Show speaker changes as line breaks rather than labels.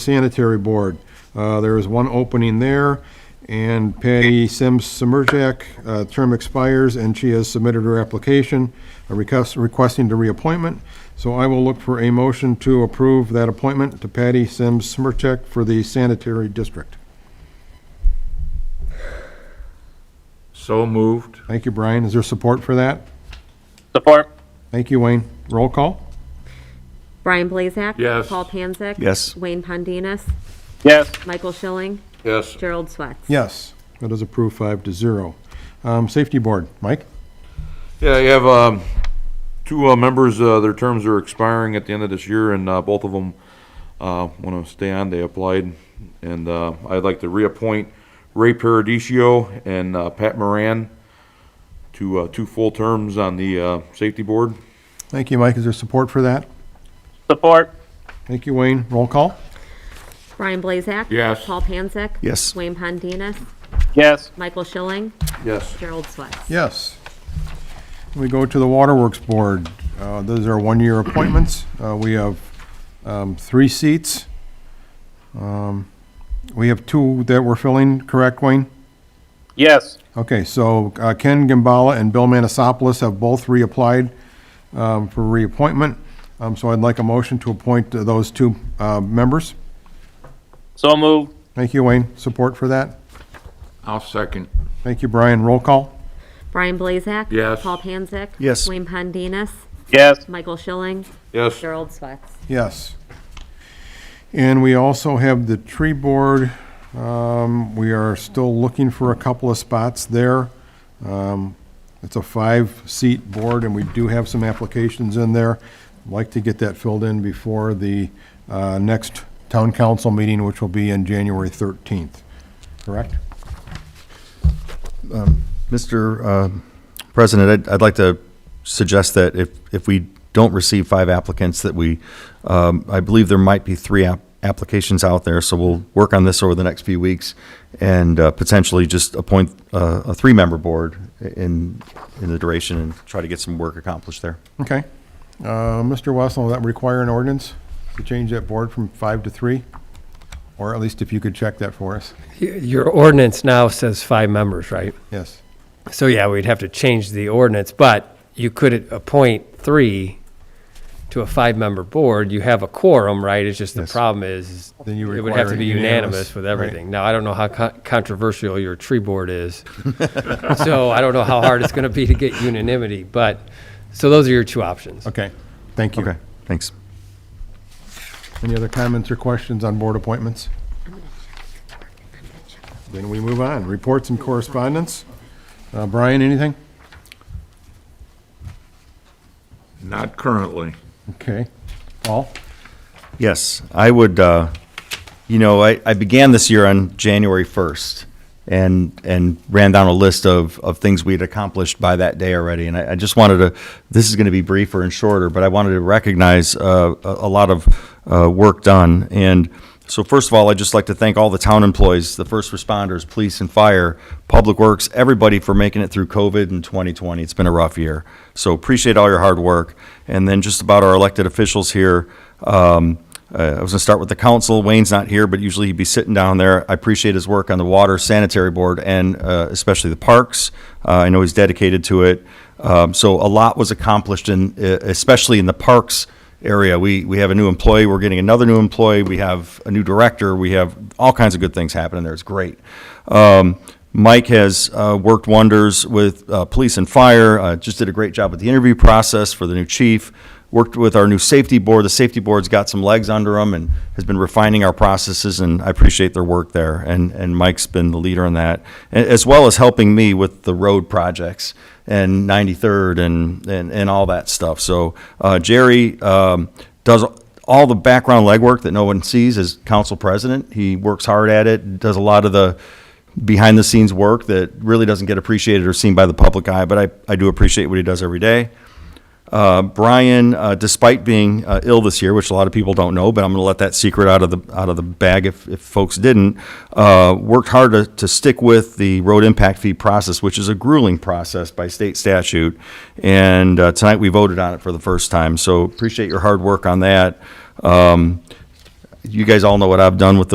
Sanitary Board. Uh, There is one opening there, and Patty Sims Semerjak, uh term expires, and she has submitted her application uh, request- requesting the reappointment. So I will look for a motion to approve that appointment to Patty Sims Semerjak for the Sanitary District.
So moved.
Thank you, Brian. Is there support for that?
Support.
Thank you, Wayne. Roll call?
Brian Blazak.
Yes.
Paul Panzak.
Yes.
Wayne Pondinas.
Yes.
Michael Schilling.
Yes.
Gerald Swatz.
Yes. That is approved five to zero. Um, Safety Board, Mike?
Yeah, you have, um, two, uh, members, uh, their terms are expiring at the end of this year, and, uh, both of them, uh, wanna stay on, they applied. And, uh, I'd like to reappoint Ray Paradisio and, uh, Pat Moran to, uh, two full terms on the, uh, safety board.
Thank you, Mike. Is there support for that?
Support.
Thank you, Wayne. Roll call?
Brian Blazak.
Yes.
Paul Panzak.
Yes.
Wayne Pondinas.
Yes.
Michael Schilling.
Yes.
Gerald Swatz.
Yes. We go to the Waterworks Board. Uh, Those are one-year appointments. Uh, We have um, three seats. Um, We have two that we're filling, correct, Wayne?
Yes.
Okay, so uh, Ken Gambala and Bill Manasopoulos have both reapplied um, for reappointment. Um, So I'd like a motion to appoint uh, those two uh, members.
So moved.
Thank you, Wayne. Support for that?
I'll second.
Thank you, Brian. Roll call?
Brian Blazak.
Yes.
Paul Panzak.
Yes.
Wayne Pondinas.
Yes.
Michael Schilling.
Yes.
Gerald Swatz.
Yes. And we also have the tree board. Um, We are still looking for a couple of spots there. Um, It's a five-seat board, and we do have some applications in there. I'd Like to get that filled in before the uh, next town council meeting, which will be on January 13th, correct?
Mr. um, President, I'd, I'd like to suggest that if, if we don't receive five applicants, that we, um, I believe there might be three app- applications out there, so we'll work on this over the next few weeks and uh, potentially just appoint uh, a three-member board in, in the duration and try to get some work accomplished there.
Okay. Uh, Mr. Wessel, will that require an ordinance to change that board from five to three? Or at least if you could check that for us.
Y- Your ordinance now says five members, right?
Yes.
So yeah, we'd have to change the ordinance, but you could appoint three to a five-member board. You have a quorum, right? It's just the
Yes.
problem is, is
Then you
it would have
require
to be
unanimous,
unanimous with
right.
everything. Now, I don't know how co- controversial your tree board is. So I don't know how hard it's going to be to get unanimity, but, so those are your two options.
Okay, thank you.
Okay, thanks.
Any other comments or questions on board appointments? Then we move on. Reports and correspondence. Uh, Brian, anything?
Not currently.
Okay. Paul?
Yes, I would, uh, you know, I, I began this year on January 1st and, and ran down a list of, of things we had accomplished by that day already. And I, I just wanted to, this is going to be briefer and shorter, but I wanted to recognize uh, a, a lot of uh, work done. And so first of all, I'd just like to thank all the town employees, the first responders, police and fire, public works, everybody for making it through COVID in 2020. It's been a rough year. So appreciate all your hard work. And then just about our elected officials here, um, uh, I was going to start with the council. Wayne's not here, but usually he'd be sitting down there. I appreciate his work on the water sanitary board and uh, especially the parks. Uh, I know he's dedicated to it. Um, So a lot was accomplished in, uh, especially in the parks area. We, we have a new employee, we're getting another new employee, we have a new director, we have all kinds of good things happening there. It's great. Um, Mike has uh, worked wonders with uh, police and fire, uh, just did a great job with the interview process for the new chief, worked with our new safety board. The safety board's got some legs under them and has been refining our processes, and I appreciate their work there. And, and Mike's been the leader in that, a- as well as helping me with the road projects and 93rd and, and, and all that stuff. So uh, Jerry um, does all the background legwork that no one sees as council president. He works hard at it, does a lot of the behind the scenes work that really doesn't get appreciated or seen by the public eye, but I, I do appreciate what he does every day. Uh, Brian, uh, despite being uh, ill this year, which a lot of people don't know, but I'm going to let that secret out of the out of the bag if, if folks didn't, uh, worked hard to, to stick with the road impact fee process, which is a grueling process by state statute. And uh, tonight we voted on it for the first time, so appreciate your hard work on that. Um, you guys all know what I've done with the